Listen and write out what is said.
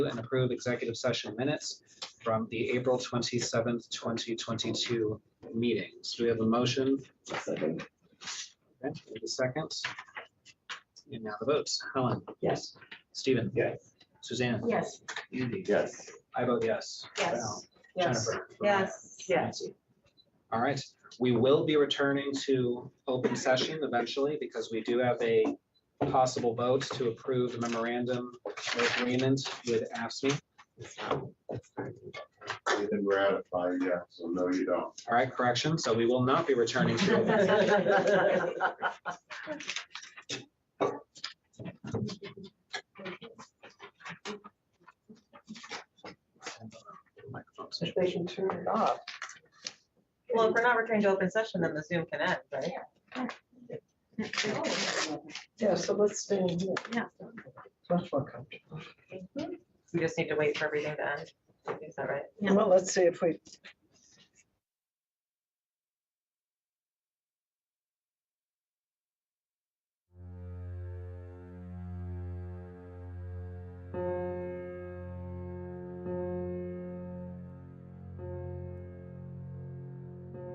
and approve executive session minutes from the April twenty-seventh, twenty twenty-two meetings. Do we have a motion? Second. Okay, we have a second. And now the votes. Helen, Yes. Stephen, Yes. Suzanne, Yes, Andy. Yes. I vote yes. yes, Val, yes, Jennifer. yes. Yes. All right, we will be returning to open session eventually because we do have a possible vote to approve the memorandum of agreement with AFSMI. You've been ratified, yeah, so no, you don't. All right, correction, so we will not be returning to open session. Microphones. If they can turn it off. Well, if we're not returning to open session, then the Zoom can end, right? Yeah, so let's stay in here. Yeah. It's Much more comfortable. We just need to wait for everything to end. Is that right? Yeah. Well, let's see if we